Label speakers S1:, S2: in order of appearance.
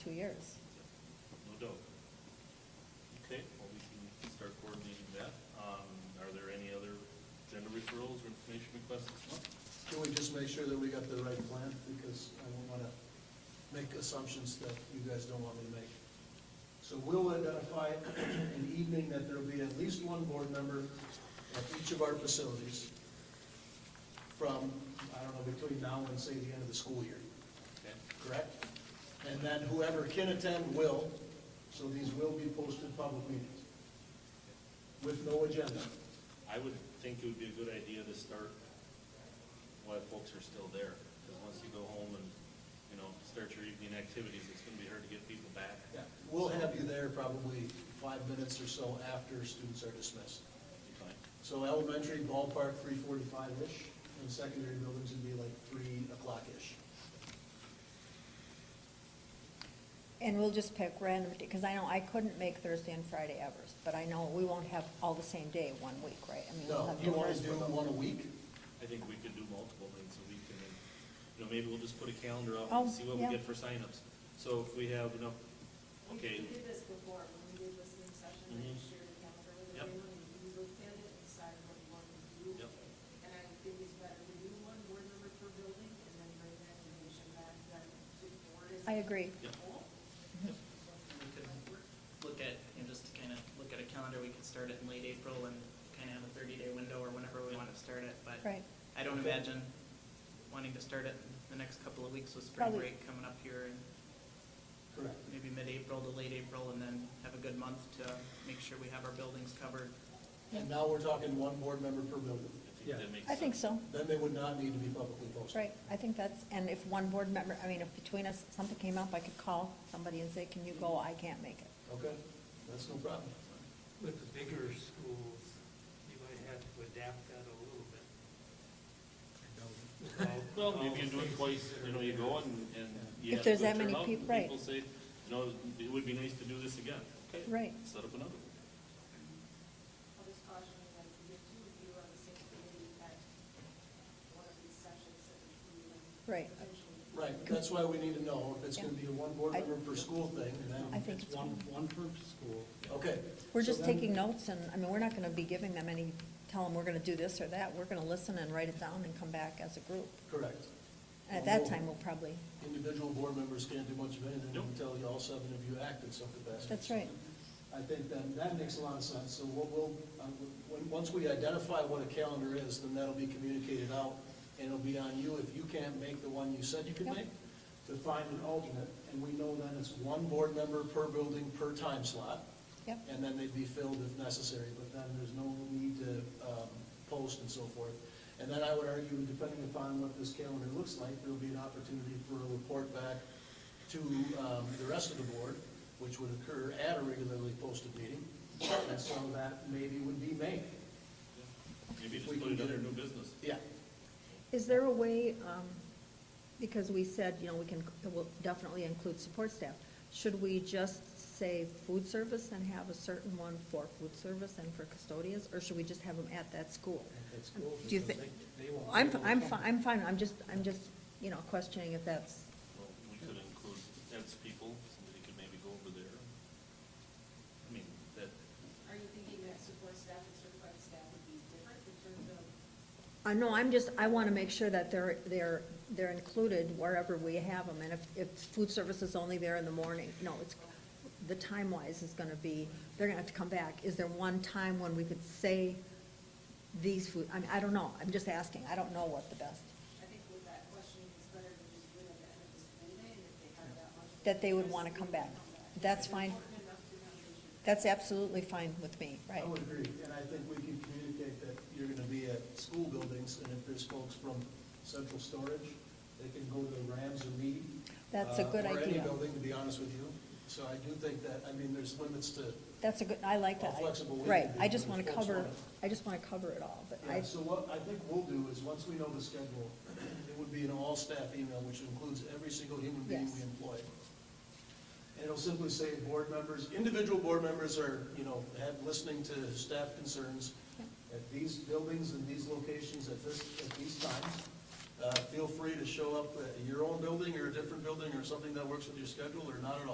S1: two years.
S2: No doubt. Okay, well, we can start coordinating that. Um, are there any other agenda referrals or information requests this month?
S3: Can we just make sure that we got the right plan? Because I don't want to make assumptions that you guys don't want me to make. So we'll identify an evening that there'll be at least one board member at each of our facilities from, I don't know, between now and say the end of the school year,
S2: Okay,
S3: correct? And then whoever can attend will, so these will be posted public meetings with no agenda.
S2: I would think it would be a good idea to start while folks are still there, because once you go home and, you know, start your evening activities, it's gonna be hard to get people back.
S3: Yeah, We'll have you there probably five minutes or so after students are dismissed.
S2: Be fine.
S3: So elementary ballpark, three forty-five-ish, and secondary buildings would be like three o'clock-ish.
S1: And we'll just pick random, because I know I couldn't make Thursday and Friday ever, but I know we won't have all the same day one week, right? I mean, we'll
S3: No,
S1: have
S3: you wanna
S1: different-
S3: do one a week?
S2: I think we could do multiple things a week, and then, you know, maybe we'll just put a calendar out and
S1: Oh,
S2: see what we
S1: yeah.
S2: get for signups. So if we have enough,
S4: We
S2: okay,
S4: we did this before, when we did listening session,
S2: Mhm.
S4: I shared the calendar with
S2: Yep.
S4: everyone, and we looked at it and decided what we wanted to do.
S2: Yep.
S4: And I think it's better to do one board member per building, and then bring that information back, then to the board as
S1: I
S4: a
S1: agree.
S2: Yep.
S4: whole.
S5: We could look at, you know, just to kind of look at a calendar, we could start it in late April and kind of have a thirty-day window or whenever we want to start it, but
S1: Right.
S5: I don't imagine wanting to start it the next couple of weeks with spring
S1: Probably-
S5: break coming up here in
S3: Correct.
S5: maybe mid-April to late April, and then have a good month to make sure we have our buildings covered.
S3: And now we're talking one board member per building.
S2: I think that makes sense.
S1: I think so,
S3: Then they would not need to be publicly posted.
S1: right, I think that's, and if one board member, I mean, if between us, something came up, I could call somebody and say, can you go, I can't make it.
S3: Okay, that's no problem.
S6: With the bigger schools, you might have to adapt that a little bit. Without-
S2: Well,
S6: without
S2: maybe you do it
S6: faces
S2: twice,
S6: that
S2: you
S6: are
S2: know, you
S6: there.
S2: go and, and you
S1: If
S2: have
S1: there's
S2: good
S1: that many
S2: turnout,
S1: peop-
S2: and
S1: right.
S2: People say, you know, it would be nice to do this again. Okay,
S1: Right.
S2: Set up another one.
S4: I'll just caution you that if you get two of you on the same committee at one of these sessions, that we would
S1: Right.
S4: potentially.
S3: Right, that's why we need to know if it's gonna be a one board
S1: I-
S3: member per school thing, and
S1: I
S3: then,
S1: think it's,
S7: One, one per school.
S3: okay.
S1: we're
S3: So
S1: just
S3: then-
S1: taking notes, and, I mean, we're not gonna be giving them any, tell them we're gonna do this or that, we're gonna listen and write it down and come back as a group.
S3: Correct.
S1: And at that
S3: Well,
S1: time, we'll probably,
S3: Individual board members can't do much of anything
S2: Nope.
S3: until you all seven of you act in some capacity.
S1: that's right,
S3: I think that, that makes a lot of sense, so we'll, we'll, uh, when, once we identify what a calendar is, then that'll be communicated out, and it'll be on you, if you can't make the one you said you could
S1: Yep.
S3: make, to find an alternate, and we know then it's one board member per building per time slot,
S1: yep,
S3: and then they'd be filled if necessary, but then there's no need to, um, post and so forth. And then I would argue, depending upon what this calendar looks like, there'll be an opportunity for a report back to, um, the rest of the board, which would occur at a regularly posted meeting, and so that maybe would be May.
S2: Maybe
S3: If
S2: just
S3: we
S2: put
S3: can
S2: it
S3: get
S2: under
S3: it-
S2: new business.
S3: Yeah,
S1: Is there a way, um, because we said, you know, we can, it will definitely include support staff, should we just say food service and have a certain one for food service and for custodians, or should we just have them at that school?
S3: that's cool.
S1: Do you think, I'm, I'm, fi- I'm fine, I'm just, I'm just, you know, questioning if that's,
S2: Well, we could include, that's people, somebody could maybe go over there. I mean, that,
S4: Are you thinking that support staff and certified staff would be different in terms of
S1: I know, Uh, I'm just, I wanna make sure that they're, they're, they're included wherever we have them, and if, if food service is only there in the morning, no, it's, the time-wise is gonna be, they're gonna have to come back, is there one time when we could say these food, I mean, I don't know, I'm just asking, I don't know what the best,
S4: I think with that question, it's better to just do it at the end of the school day, and if they have that much.
S1: that they would wanna come back. That's fine,
S4: Important enough to have they should-
S1: that's absolutely fine with me, right?
S3: I would agree, and I think we can communicate that you're gonna be at school buildings, and if there's folks from central storage, they can go to the Rams or Mead.
S1: That's a
S3: uh,
S1: good
S3: Or any
S1: idea.
S3: building, to be honest with you. So I do think that, I mean, there's limits to,
S1: That's a good, I like that.
S3: How flexible we can
S1: Right,
S3: be
S1: I just
S3: when
S1: wanna
S3: folks
S1: cover,
S3: want it.
S1: I just wanna cover it all, but I,
S3: yeah, so what I think we'll do is, once we know the schedule, it would be an all-staff email, which includes every single human being
S1: Yes.
S3: we employ. And it'll simply say, board members, individual board members are, you know, have, listening to staff concerns at these buildings and these locations at this, at these times. Uh, feel free to show up at your own building or a different building or something that works with your schedule or not at all.